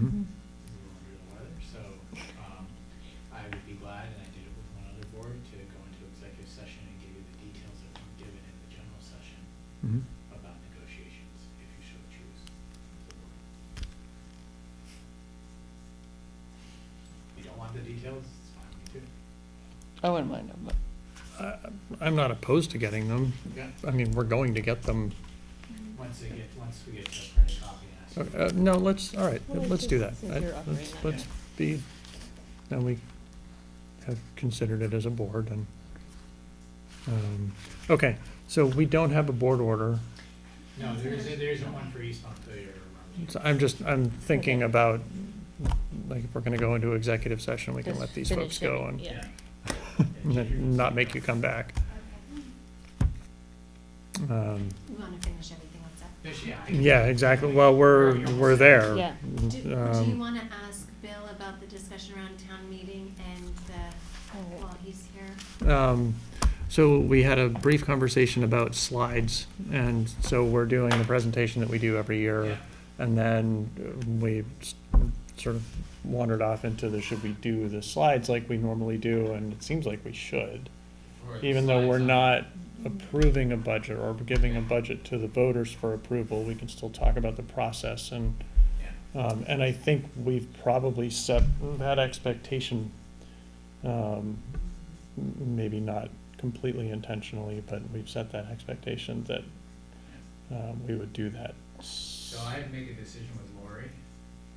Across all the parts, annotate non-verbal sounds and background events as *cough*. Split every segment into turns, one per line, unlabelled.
real weather, so, um, I would be glad, and I did it with one other board, to go into executive session and give you the details that were given in the general session
Mhm.
about negotiations, if you so choose. If you don't want the details, it's fine, with me too.
I wouldn't mind them, but
I'm not opposed to getting them.
Yeah.
I mean, we're going to get them.
Once they get, once we get the printed copy and ask.
Uh, uh, No, let's, all right,
Well,
let's do that.
since you're
Let's-
operating on
Let's be, now we have considered it as a board and, um, okay, so we don't have a board order.
No, there isn't, there isn't one for East Montpelier or Romney.
So I'm just, I'm thinking
Okay.
about, like, if we're gonna go into executive session, we can
Just
let these
finish
folks go
it,
and
yeah.
and then *laughs* not make you come back. Um,
We want to finish everything on that.
There's- yeah, I can-
Yeah, exactly. Well, we're, we're there.
Yeah.
Do, do you
Um,
want to ask Bill about the discussion around town meeting and the,
Oh.
while he's here?
um, So we had a brief conversation about slides, and so we're doing the presentation that we do every year.
Yeah.
And then uh, we s- sort of wandered off into the, should we do the slides like we normally do? And it seems like we should,
Or the
even though we're
slides on-
not approving a budget or giving a budget to the voters for approval, we can still talk about the process and
Yeah.
Um, and I think we've probably set that expectation, um, m- maybe not completely intentionally, but we've set that expectation that, um, we would do that.
So I'd make a decision with Lori,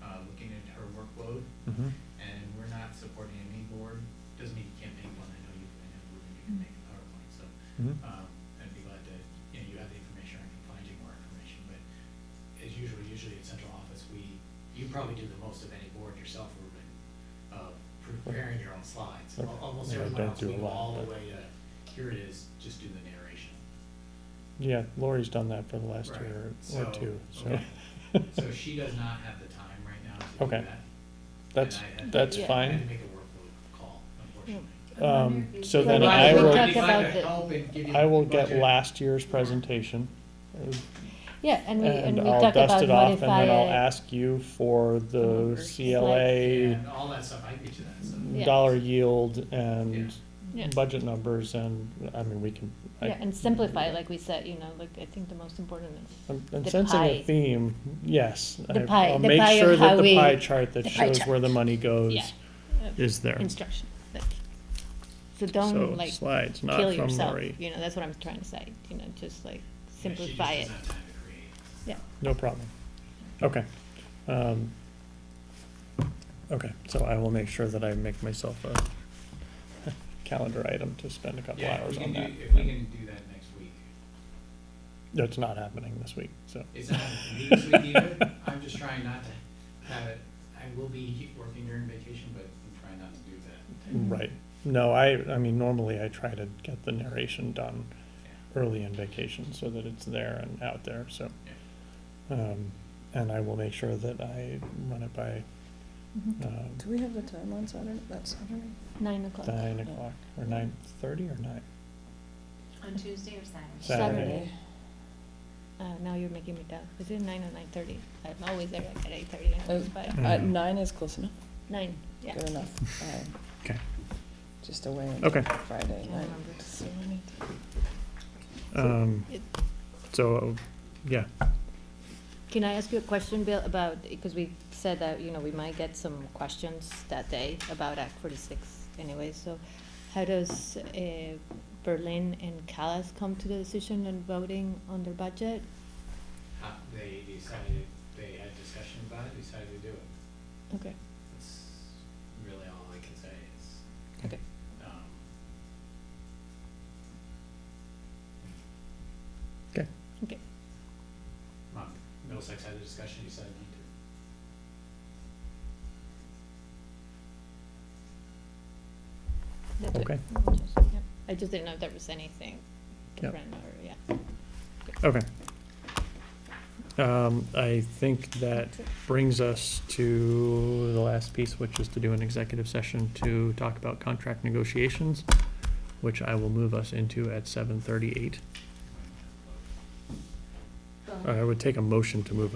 uh, looking at her workload,
Mhm.
and we're not supporting any board, doesn't mean you can't make one, I know you, I know Ruben, you can make a PowerPoint, so,
Mhm.
um, I'd be glad to, you know, you have the information, I can find you more information, but as usual, usually at central office, we, you probably do the most of any board yourself, Ruben, of preparing your own slides. Al-
Okay.
Almost
Yeah, I
everyone
don't
else,
do
we
a
go
lot,
all the
but-
way to, here it is, just do the narration.
Yeah, Lori's done that for the last
Right.
year or
So,
two, so,
okay. So she does not have the time right now to do
Okay.
that.
*laughs* that's,
And I had-
that's
Yeah.
I had to
fine.
make a workload call, unfortunately.
Um, so
Then
then
Well,
I
we
will,
talk
If I
about
could
the-
help and give you
I will
the
get
budget.
last year's presentation. uh,
Yeah, and we, and
And
we
I'll
talk
dust
about
it off and then I'll
modify it.
ask you for the
Numbers.
CLA
And all that stuff, I get you that stuff.
Yeah.
dollar yield and
Yeah.
budget numbers and, I mean, we can. I-
Yeah, and simplify, like we said, you know, like, I think the most important is,
I'm I'm
the
sensing a
pie.
theme, yes.
The
I-
pie-
I'll
the pie
make
of
sure
how
that the
we-
pie chart that
the pie
shows where the money
yeah,
goes is there.
instruction. like-
So
So don't like
slides, not
kill
from
yourself,
Lori.
you know, that's what I'm trying to say, you know, just like
Yeah, she just
simplify it,
doesn't have time to create.
yeah.
No problem. Okay. Um, Okay, so I will make sure that I make myself a *laughs* calendar item to spend a couple
Yeah, if
hours
we can
on
do,
that.
if we can do that next week.
That's not happening this week, so.
It's not happening this week either, I'm just trying not to have it, I will be working during vacation, but I'm trying not to do that.
*laughs* Right. No, I, I mean, normally I try to get the narration done
Yeah.
early in vacation so that it's there and out there, so.
Yeah.
Um, and I will make sure that I run it by, um,
Do we have the time on Saturday, that Saturday?
Mm-hmm. Nine o'clock.
nine o'clock, or nine thirty or nine?
On Tuesday or Saturday?
Saturday.
Uh, now you're making me doubt, is it nine or nine thirty? I'm always there like at eight thirty, I always buy,
Mm.
Uh, nine is close enough,
nine, yeah.
good enough. I
Okay.
Just away
Okay.
on Friday
Can't
night.
remember.
So we need to-
Um, so, yeah,
Can I ask you a question, Bill, about, because we said that, you know, we might get some questions that day about Act forty-six anyway, so how does uh, Berlin and Calais come to the decision on voting on their budget?
Uh, They decided, they had discussion about it, decided to do it.
Okay.
That's really all I can say is.
Okay.
Um,
okay,
Okay,
Mom, Middlesex had a discussion, you said not
that's it.
Okay.
Yep. I just didn't know if there was anything
Yep.
different or, yeah.
okay. Um, I think that brings us to the last piece, which is to do an executive session to talk about contract negotiations, which I will move us into at Uh, seven thirty-eight. I would take a motion to move us.